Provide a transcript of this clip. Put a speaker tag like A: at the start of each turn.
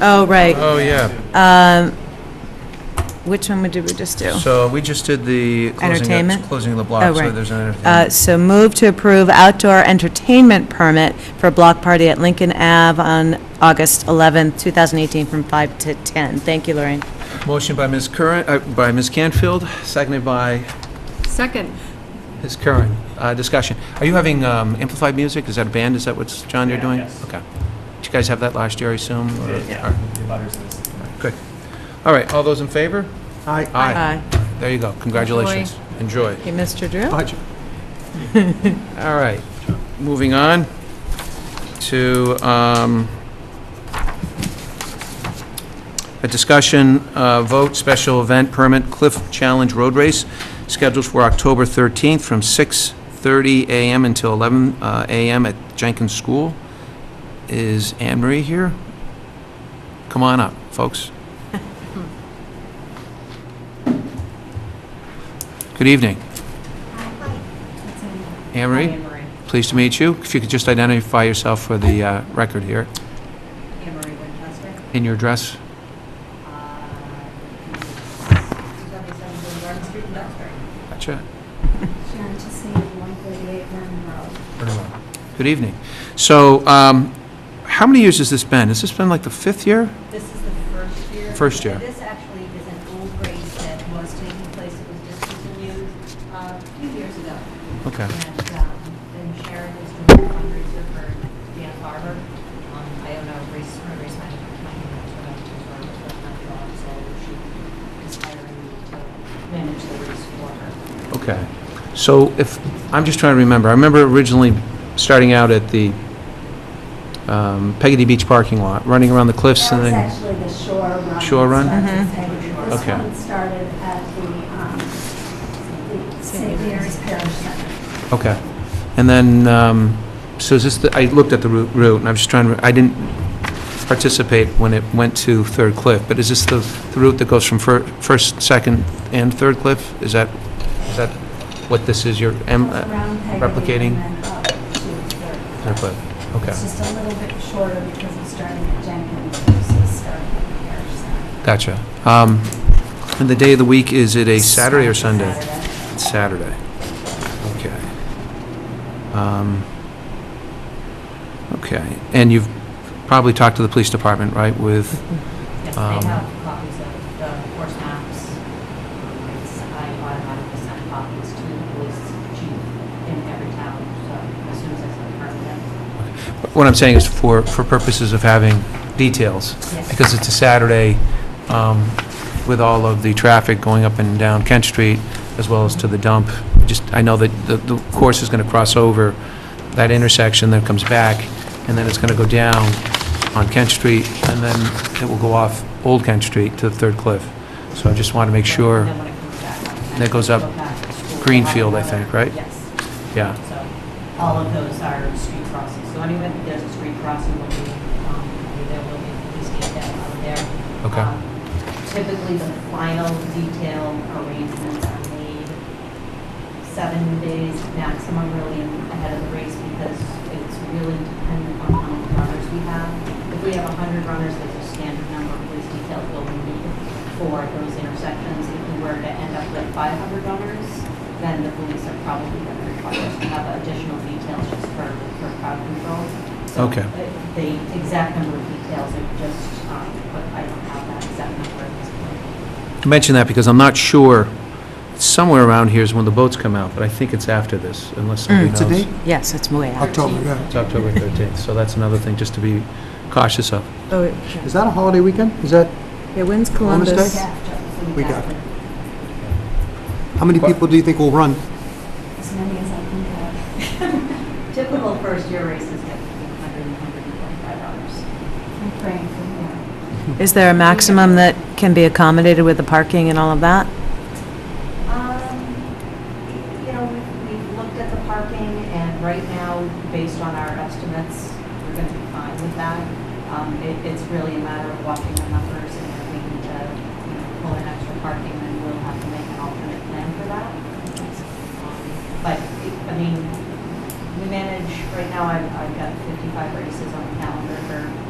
A: Oh, right. Um,
B: Oh, yeah.
A: Which one would- did we just do?
B: So we just did the closing,
A: Entertainment?
B: of- closing of the
A: Oh,
B: block, so
A: right.
B: there's an
A: Uh,
B: entertainment.
A: So move to approve outdoor entertainment permit for a block party at Lincoln Ave on August 11th, 2018, from 5 to 10. Thank you, Lorraine.
B: Motion by Ms. Curran, uh, by Ms. Canfield, seconded by
C: Second.
B: Ms. Curran. Uh, Discussion. Are you having um, amplified music? Is that a band? Is that what's, John, you're doing?
D: yes.
B: Okay. Did you guys have that last year, I assume? or-
D: Yeah,
B: all right,
D: the butters list.
B: Good. All right, all those in favor?
E: Aye.
B: Aye. There you go. Congratulations. Enjoy.
A: Okay, Mr. Drew?
E: Budget.
B: All right, moving on to um, a discussion, uh, vote, special event permit, Cliff Challenge Road Race, scheduled for October 13th from 6:30 a.m. until 11 uh, a.m. at Jenkins School. Is Anne Marie here? Come on up, folks. Good evening. Anne Marie? Pleased to meet you. If you could just identify yourself for the uh, record here,
F: Anne-Marie Winchester.
B: in your address. Gotcha.
G: Sharon Chesney, 138 Vernon Road.
B: Good evening. So, um, how many years has this been? Has this been like the fifth year?
F: This is the first year.
B: First year.
F: This actually is an old race that was taking place, it was discontinued uh, a few years ago.
B: Okay.
F: And um, then Sharon was doing a fundraiser for Dan Barber. Um, I don't know, race, her race manager, I don't know, it's her, it's her job, so she is hiring me to manage the race for
B: Mm-hmm.
F: her.
B: Okay. So if, I'm just trying to remember. I remember originally starting out at the um, Peggy Beach parking lot, running around the cliffs
G: That
B: and
G: was
B: then...
G: actually the shore run.
B: Shore run?
G: This
B: Okay.
G: one started at the, um, the St. Mary's Parish Center.
B: Okay. And then, um, so is this, the- I looked at the route- route, and I'm just trying to, I didn't participate when it went to Third Cliff, but is this the the route that goes from fir- First, Second, and Third Cliff? Is that, is that what this is, your em- uh,
G: Around Peggy
B: replicating?
G: and then up to Third.
B: Third Cliff? Okay,
G: It's just a little bit shorter because it's starting at Jenkins versus starting at the Parish Center.
B: gotcha. Um, And the day of the week, is it a Saturday or Sunday?
G: Saturday.
B: It's Saturday. Okay. Um, Okay. And you've probably talked to the police department, right, with
F: Yes,
B: Um,
F: they have copies of the course maps. Um, it's- I automatically send copies to the police chief in every town, so as soon as I send her them.
B: What I'm saying is for, for purposes of having details,
F: Yes.
B: because it's a Saturday um, with all of the traffic going up and down Kent Street, as well as to the dump. Just, I know that the, the course is going to cross over that intersection, then it comes back, and then it's going to go down on Kent Street, and then it will go off Old Kent Street to the Third Cliff. So I just want to make sure,
F: And then when it comes back, I send
B: That goes
F: it
B: up
F: to go back to school.
B: Greenfield, I think, right?
F: Yes.
B: yeah.
F: So all of those are street crossings. So anyway, there's a street crossing, will be, um, there will be, please get that out there.
B: Okay.
F: Um, Typically, the final detail arrangements are made seven days maximum really ahead of the race because it's really dependent on how many runners we have. If we have 100 runners, there's a standard number of police details will be needed for those intersections. If we were to end up with 500 runners, then the police are probably going to require us to have additional details just for, for crowd control. So
B: Okay.
F: the- The exact number of details are just, um, but I don't have that exact number at this point.
B: mention that because I'm not sure, somewhere around here is when the boats come out, but I think it's after this, unless somebody knows.
E: What's the date?
A: Yes, it's way out.
E: October, yeah.
B: It's October 13th, so that's another thing just to be cautious of.
A: Oh,
E: Is that a holiday weekend? Is that,
A: yeah, when's
E: Columbus Day?
A: Columbus?
G: Yeah,
E: we got it. How many people do you think will run?
G: as many as I can get.
F: Typical first-year races get between 100 and 125 dollars.
G: I'm praying for more.
A: Is there a maximum that can be accommodated with the parking and all of that?
F: Um, You know, we- we've looked at the parking, and right now, based on our estimates, we're going to be fine with that. Um, it- It's really a matter of watching the numbers, and if we need to you know, pull in extra parking, then we'll have to make an alternate plan for that. Um, But, it- I mean, we manage, right now, I've I've got 55 races on the calendar for